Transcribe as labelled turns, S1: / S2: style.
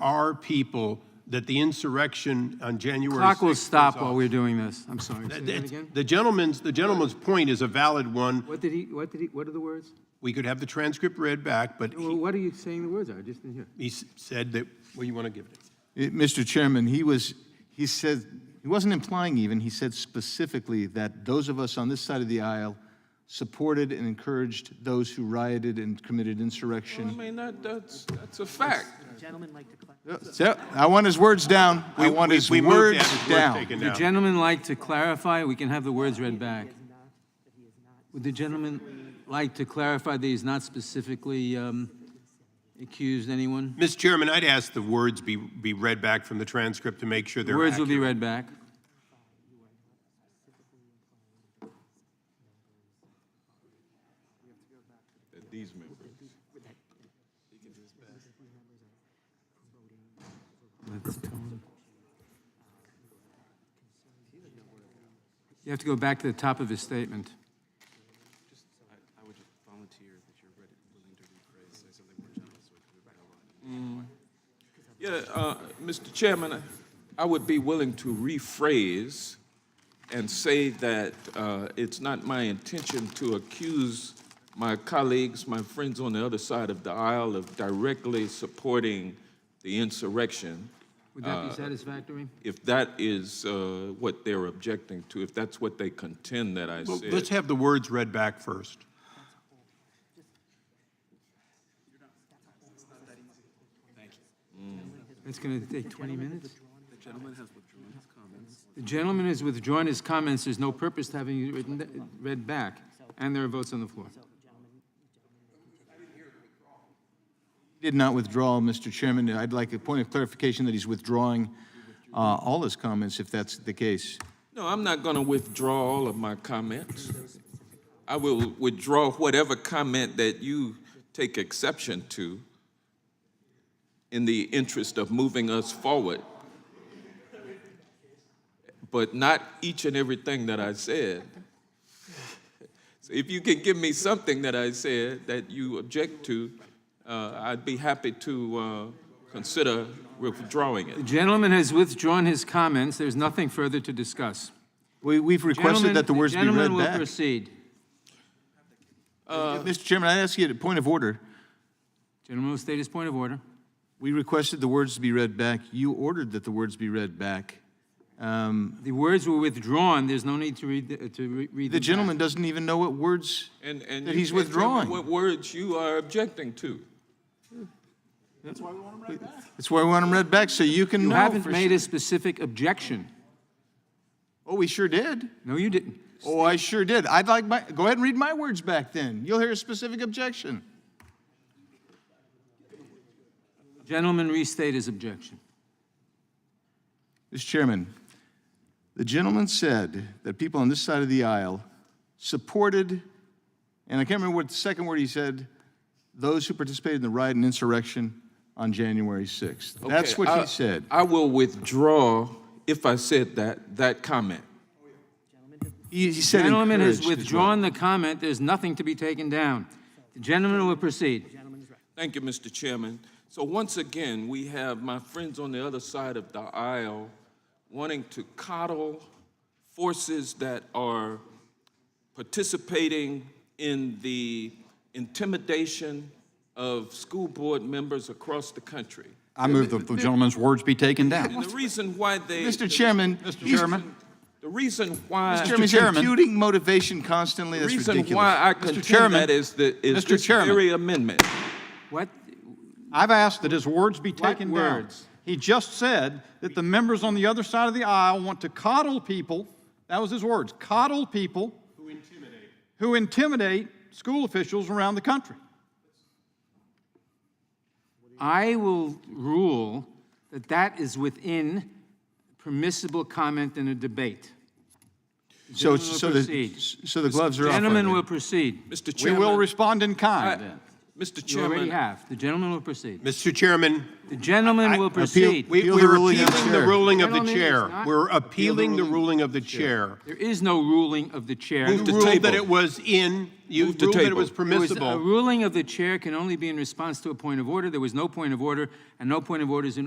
S1: our people that the insurrection on January 6th.
S2: Clock will stop while we're doing this. I'm sorry. Say that again?
S1: The gentleman's, the gentleman's point is a valid one.
S2: What did he, what did he, what are the words?
S1: We could have the transcript read back, but
S2: Well,
S1: he-
S2: what are you saying the words are? I just didn't hear.
S1: he s- said that, well, you want to give it?
S3: Eh, Mr. Chairman, he was, he said, he wasn't implying even, he said specifically that those of us on this side of the aisle supported and encouraged those who rioted and committed
S4: I
S3: insurrection.
S4: mean, that, that's, that's a fact.
S5: Gentlemen like to collect.
S3: So, I want his words down. I
S1: We-
S3: want
S1: we-
S3: his
S1: we moved that.
S3: words
S1: His word's
S3: down.
S1: taken
S2: Would the
S1: down.
S2: gentleman like to clarify? We can have the words read back. Would the gentleman like to clarify that he's not specifically um, accused anyone?
S1: Mr. Chairman, I'd ask the words be, be read back from the transcript to make sure
S2: The
S1: they're
S2: words will be
S1: accurate.
S2: read back.
S4: These members.
S2: Let's tell him. You have to go back to the top of his statement.
S6: I would just volunteer that you're ready, willing to rephrase, say something more generous with
S4: Yeah, uh, Mr. Chairman, I would be willing to rephrase and say that uh, it's not my intention to accuse my colleagues, my friends on the other side of the aisle of directly supporting the insurrection.
S2: Would that be satisfactory?
S4: If that is uh, what they're objecting to, if that's what they contend that I
S1: Well,
S4: said.
S1: Let's have the words read back first.
S2: It's going to take 20 minutes? The gentleman has withdrawn his comments. There's no purpose to having it written, read back. And there are votes on the floor.
S3: He Did not withdraw, Mr. Chairman. I'd like a point of clarification that he's withdrawing uh, all his comments, if that's the case.
S4: No, I'm not going to withdraw all of my comments. I will withdraw whatever comment that you take exception to in the interest of moving us forward. But not each and everything that I said. So if you can give me something that I said that you object to, uh, I'd be happy to uh, consider withdrawing it.
S2: The gentleman has withdrawn his comments. There's nothing further to discuss.
S3: We, we've requested
S2: Gentlemen-
S3: that the words be read back.
S2: Gentleman will proceed.
S3: Mr. Chairman, I ask you a point of order.
S2: Gentleman will state his point of order.
S3: We requested the words to be read back. You ordered that the words be read back.
S2: The words were withdrawn. There's no need to read, the- to re- read
S3: The
S2: them back.
S3: gentleman doesn't even know what words
S4: And, and
S3: that
S4: you
S3: he's
S4: can't tell me
S3: withdrawing.
S4: What words you are objecting to.
S3: That's why we want them read back, so you can
S2: You
S3: know.
S2: haven't
S3: for
S2: made
S3: sure.
S2: a specific objection.
S3: Oh, we sure did.
S2: No, you didn't.
S3: Oh, I sure did. I'd like my, go ahead and read my words back then. You'll hear a specific objection.
S2: Gentleman restate his objection.
S3: Mr. Chairman, the gentleman said that people on this side of the aisle supported, and I can't remember what the second word he said, those who participated in the riot and insurrection on January 6th. That's
S4: Okay, uh,
S3: what
S4: I-
S3: he said.
S4: I will withdraw, if I said that, that comment.
S3: He, he said
S2: Gentleman has
S3: encouraged as well.
S2: withdrawn the comment. There's nothing to be taken down. The gentleman will proceed.
S4: Thank you, Mr. Chairman. So once again, we have my friends on the other side of the aisle wanting to coddle forces that are participating in the intimidation of school board members across the country.
S7: I move that the gentleman's words be taken
S4: And
S7: down.
S4: the reason why they.
S3: Mr. Chairman,
S7: Mr.
S3: he's-
S7: Chairman,
S4: The reason why.
S3: Mr. Chairman, he's
S7: Chairman.
S3: imputing motivation constantly.
S4: The
S3: That's
S4: reason
S3: ridiculous.
S4: why I contend
S7: Chairman.
S4: that is the, is
S7: Mr.
S4: this
S7: Chairman.
S4: very amendment.
S2: What?
S7: I've asked that his words be taken down.
S2: words?
S7: He just said that the members on the other side of the aisle want to coddle people, that was his words, coddle people. Who intimidate. Who intimidate school officials around the country.
S2: I will rule that that is within permissible comment in a debate.
S3: So,
S2: Gentlemen will
S3: so the,
S2: proceed.
S3: so the gloves are off.
S2: Gentleman
S3: on
S2: will
S3: that.
S2: proceed.
S4: Mr.
S7: We
S4: Chairman.
S7: will respond in
S4: I-
S7: kind then.
S4: Mr.
S2: You already
S4: Chairman,
S2: have. The gentleman will proceed.
S1: Mr. Chairman,
S2: The gentleman will proceed.
S1: we-
S3: Appeal the
S1: we're
S3: ruling of the
S1: appealing the
S3: chair.
S1: ruling of the
S2: Gentlemen, it's
S1: chair.
S2: not-
S1: We're appealing the ruling of the chair.
S2: There is no ruling of the chair.
S1: You
S4: Move to
S1: ruled that
S4: table.
S1: it was in, you
S4: Move to
S1: ruled that it
S4: table.
S1: was
S2: There was A
S1: permissible.
S2: ruling of the chair can only be in response to a point of order. There was no point of order, and no point of order is in